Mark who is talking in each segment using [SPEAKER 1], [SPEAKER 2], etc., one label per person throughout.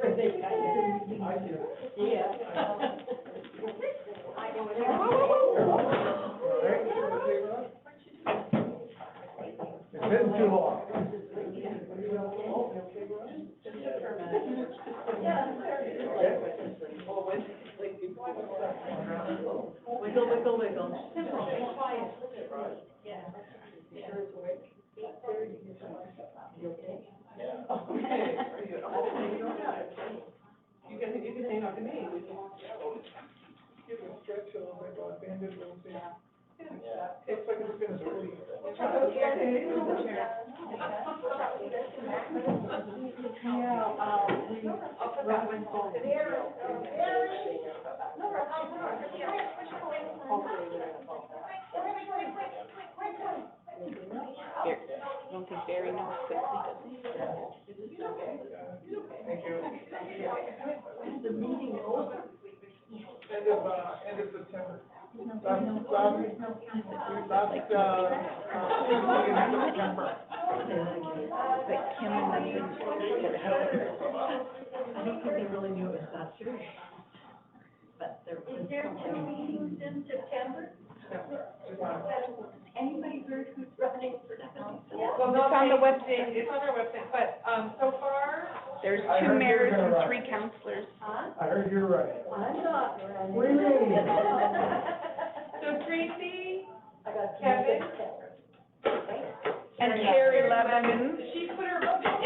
[SPEAKER 1] think I do. I do. Yeah.
[SPEAKER 2] It's been too long.
[SPEAKER 1] Wiggle, wiggle, wiggle. Okay. You can, you can hang on to me.
[SPEAKER 2] It's like it's been a story.
[SPEAKER 1] Yeah, um, we, Rob went home. Hopefully we're gonna fall.
[SPEAKER 3] I don't think Barry knows that he doesn't.
[SPEAKER 2] Thank you.
[SPEAKER 1] The meeting over.
[SPEAKER 2] End of, uh, end of September. Last, last, last, uh, uh, Tuesday in September.
[SPEAKER 3] But Kim remembers that
[SPEAKER 1] I don't think they really knew it was that serious. But there was. Is there two meetings in September?
[SPEAKER 2] Just on-
[SPEAKER 1] Anybody heard who's running for that?
[SPEAKER 4] Well, no,
[SPEAKER 3] It's on the
[SPEAKER 4] they-
[SPEAKER 3] website.
[SPEAKER 4] they- It's on our website, but, um, so far,
[SPEAKER 3] there's
[SPEAKER 2] I
[SPEAKER 3] two
[SPEAKER 2] heard they were
[SPEAKER 3] mayors
[SPEAKER 2] gonna
[SPEAKER 3] and
[SPEAKER 2] run.
[SPEAKER 3] three councilors.
[SPEAKER 2] I heard you're right.
[SPEAKER 1] I'm not running.
[SPEAKER 2] We're running.
[SPEAKER 4] so Tracy,
[SPEAKER 1] I got two
[SPEAKER 4] Kevin?
[SPEAKER 1] things.
[SPEAKER 3] And Carrie Levin,
[SPEAKER 4] she put her, it's,
[SPEAKER 3] yeah,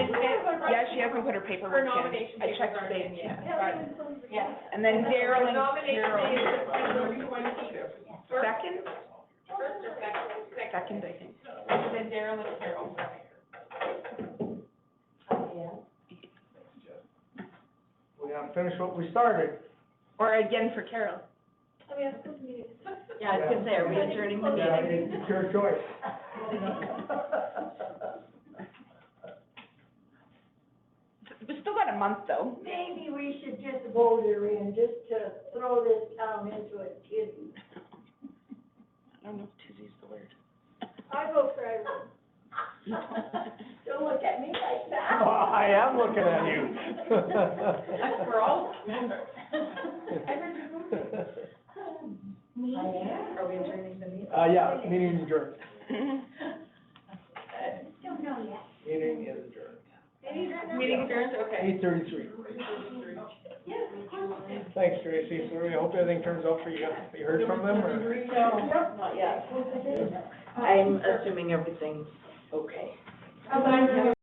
[SPEAKER 4] it's
[SPEAKER 3] she hasn't put her
[SPEAKER 4] her
[SPEAKER 3] paperwork
[SPEAKER 4] nomination
[SPEAKER 3] in. I
[SPEAKER 4] papers
[SPEAKER 3] checked
[SPEAKER 4] aren't
[SPEAKER 3] today,
[SPEAKER 4] in
[SPEAKER 3] yeah.
[SPEAKER 4] yet. Right.
[SPEAKER 1] Yeah.
[SPEAKER 3] And then Daryl
[SPEAKER 4] The
[SPEAKER 3] and
[SPEAKER 4] nomination
[SPEAKER 3] Carol.
[SPEAKER 4] is September twenty, first,
[SPEAKER 3] Second,
[SPEAKER 4] first or second, second,
[SPEAKER 3] second, I think.
[SPEAKER 4] and then Daryl and Carol.
[SPEAKER 2] We have to finish what we started.
[SPEAKER 3] Or again for Carol.
[SPEAKER 1] Yeah, I was gonna say, are we adjourning the
[SPEAKER 2] Yeah,
[SPEAKER 1] meeting?
[SPEAKER 2] it's your choice.
[SPEAKER 3] We still got a month though.
[SPEAKER 5] Maybe we should just vote her in, just to throw this town into a kitten.
[SPEAKER 3] I don't know if Tuesday's the word.
[SPEAKER 5] I vote for Irene. Don't look at me like that.
[SPEAKER 2] I am looking at you.
[SPEAKER 4] We're all members.
[SPEAKER 1] Are we adjourning the meeting?
[SPEAKER 2] Uh, yeah, meeting is adjourned.
[SPEAKER 5] Don't know yet.
[SPEAKER 2] Meeting is adjourned.
[SPEAKER 4] Meeting adjourned, okay.
[SPEAKER 2] Eight thirty-three. Thanks, Tracy. So we hope everything turns out for you. You heard from them or?
[SPEAKER 1] Not yet. I'm assuming everything's okay.
[SPEAKER 4] How's Ira?